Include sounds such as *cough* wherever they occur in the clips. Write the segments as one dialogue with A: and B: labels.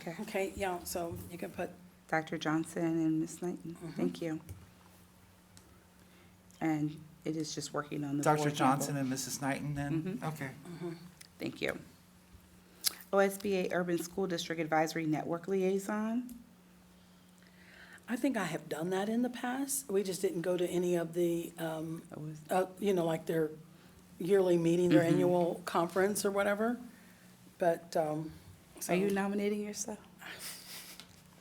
A: Okay,
B: Okay, yeah, so you can put,
A: Dr. Johnson and Ms. Knighton, thank you. And it is just working on the Mm-hmm. board
C: Dr.
A: level.
C: Johnson and Mrs. Knighton then? Okay.
A: Thank you. OSBA Urban School District Advisory Network Liaison,
B: I think I have done that in the past. We just didn't go to any of the, um,
A: Always.
B: uh, you know, like their yearly meeting, their annual conference or whatever. But, um, so.
A: are you nominating yourself?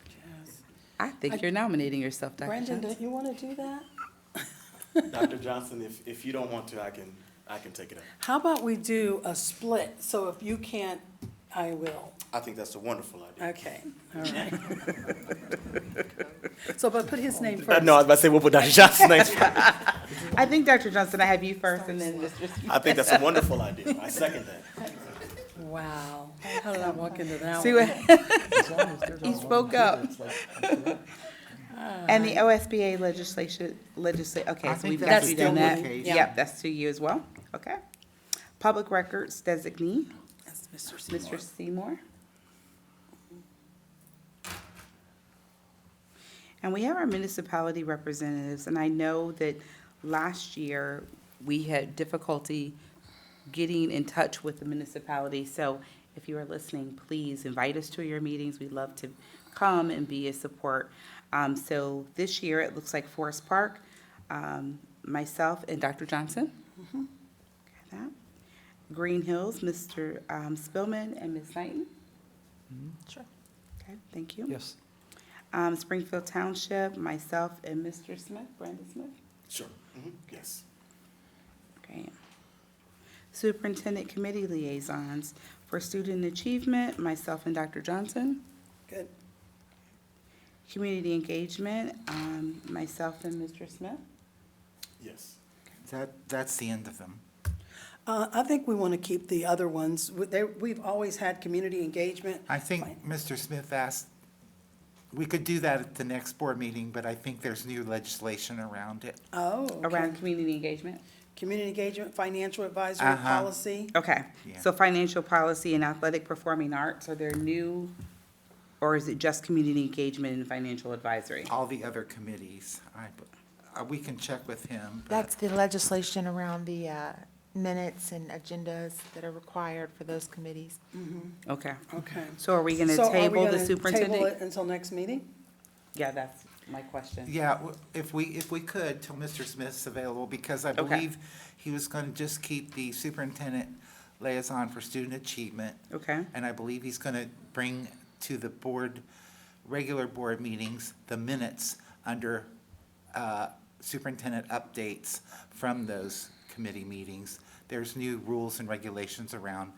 B: Yes.
A: I think you're nominating yourself, Dr.
B: Brandon,
A: Johnson.
B: don't you want to do that?
D: Dr. Johnson, if, if you don't want to, I can, I can take it up.
B: How about we do a split? So if you can't, I will.
D: I think that's a wonderful idea.
B: Okay, all right. So, but put his name
D: Uh,
B: first.
D: No, I was about to say, we'll put Dr. Johnson next.
A: I think, Dr. Johnson, I have you first and then Mr. Smith.
D: I think that's a wonderful idea. I second that.
B: Wow, how did I walk into that
A: See
B: one?
A: what? He spoke up. And the OSBA legislation, legislate, okay,
C: I
A: so
C: think
A: we've
C: that's
A: actually
C: still
A: done that.
C: the case.
A: Yep, that's to you as well, okay. Public Records Designee,
B: That's Mr.
A: Mr. Seymour. And we have our municipality representatives, and I know that last year, we had difficulty getting in touch with the municipality. So if you are listening, please invite us to your meetings. We'd love to come and be a support. Um, so this year, it looks like Forest Park, um, myself and Dr. Johnson. Got that. Green Hills, Mr. um, Spillman and Ms. Knighton.
B: Mm-hmm. Sure.
A: Okay, thank you.
C: Yes.
A: Um, Springfield Township, myself and Mr. Smith, Brandon Smith.
D: Sure. Mhm. Yes.
A: Great. Superintendent Committee Liaisons for Student Achievement, myself and Dr. Johnson.
B: Good.
A: Community Engagement, um, myself and Mr. Smith.
D: Yes.
C: That, that's the end of them.
B: Uh, I think we want to keep the other ones. We- they- We've always had community engagement.
C: I think Mr. Smith asked, we could do that at the next board meeting, but I think there's new legislation around it.
B: Oh, okay.
A: Around community engagement?
B: Community engagement, financial advisory,
C: Uh-huh.
B: policy.
A: Okay,
C: Yeah.
A: so financial policy and athletic performing arts, are there new, or is it just community engagement and financial advisory?
C: All the other committees, I, uh, we can check with him. but-
E: That's the legislation around the uh, minutes and agendas that are required for those committees.
A: Okay,
B: Okay.
A: so are we gonna
B: So are we
A: table
B: gonna
A: the
B: table
A: superintendent?
B: it Until next meeting?
A: Yeah, that's my question.
C: Yeah, w- if we, if we could, till Mr. Smith's available, because I
A: Okay.
C: believe he was going to just keep the superintendent liaison for student achievement.
A: Okay,
C: And I believe he's going to bring to the board, regular board meetings, the minutes under uh, superintendent updates from those committee meetings. There's new rules and regulations around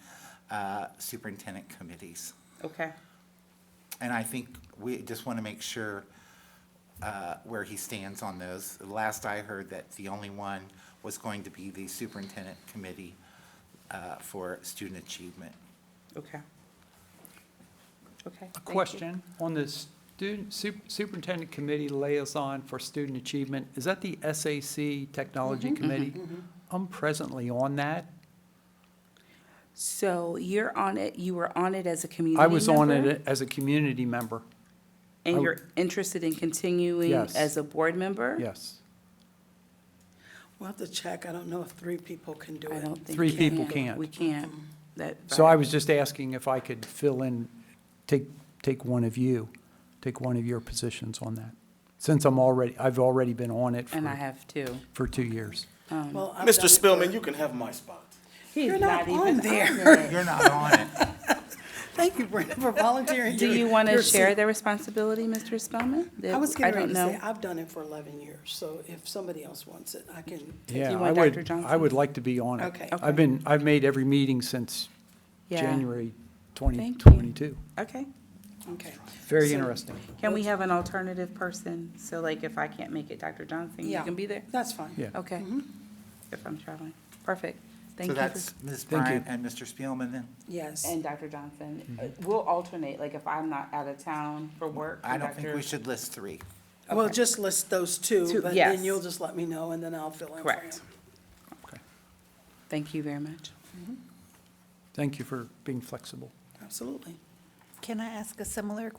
C: uh, superintendent committees.
A: okay,
C: And I think we just want to make sure uh, where he stands on those. Last I heard that the only one was going to be the superintendent committee uh, for student achievement.
A: okay. Okay. thank
F: A
A: you.
F: question on the student, sup- superintendent committee liaison for student achievement, is that the SAC Technology
A: Mm-hmm,
F: Committee? I'm presently on that.
A: So you're on it, you were on it as a community
F: I was on
A: member,
F: it as a community member,
A: And
F: I-
A: you're interested in continuing
F: Yes.
A: as a board member?
F: yes.
B: We'll have to check. I don't know if three people can do
A: I
B: it.
A: don't think.
F: Three
A: we
F: people
A: can.
F: can't.
A: We can't. That.
F: So I was just asking if I could fill in, take, take one of you, take one of your positions on that. Since I'm already, I've already been on it
A: And I
F: for,
A: have two.
F: for two years.
B: Well, I've done
D: Mr.
B: it
D: Spillman, you can have my spot.
B: You're not
A: *laughs*
B: on
A: there.
C: You're not on it.
B: for- Thank you, Brenda, for volunteering.
A: Do
B: your-
A: you want to
B: your
A: share
B: seat.
A: the responsibility, Mr. Spellman?
B: I was getting ready
A: don't
B: to say,
A: know.
B: I've done it for 11 years, so if somebody else wants it, I can.
F: Yeah, I
A: want Dr.
F: would, I
A: Johnson?
F: would like to be on it.
B: Okay.
A: Okay.
F: I've been, I've made every meeting since
A: Yeah.
F: January
A: you.
F: 2022.
A: Okay.
B: Okay.
F: Very
B: So-
F: interesting.
A: Can we have an alternative person? So like if I can't make it, Dr. Johnson, you
B: Yeah. Mm-hmm.
A: can be there?
B: That's fine.
F: Yeah.
A: Okay. If I'm traveling. Perfect. Thank
C: So
A: you. for-
C: that's Ms.
F: Thank you.
C: Bryant and Mr. Spielman, and
B: Yes.
A: And Dr. Johnson, Uh, we'll alternate, like if I'm not out of town for work.
C: Mm-hmm. I
A: and
C: don't think
A: Dr.
C: we should list three.
B: Well, just list those two,
A: Two,
B: but
A: yes.
B: then you'll just let me know, and then I'll fill in for you.
A: Correct. Thank you very much.
F: Thank you for being flexible.
B: Absolutely.
E: Can I ask a similar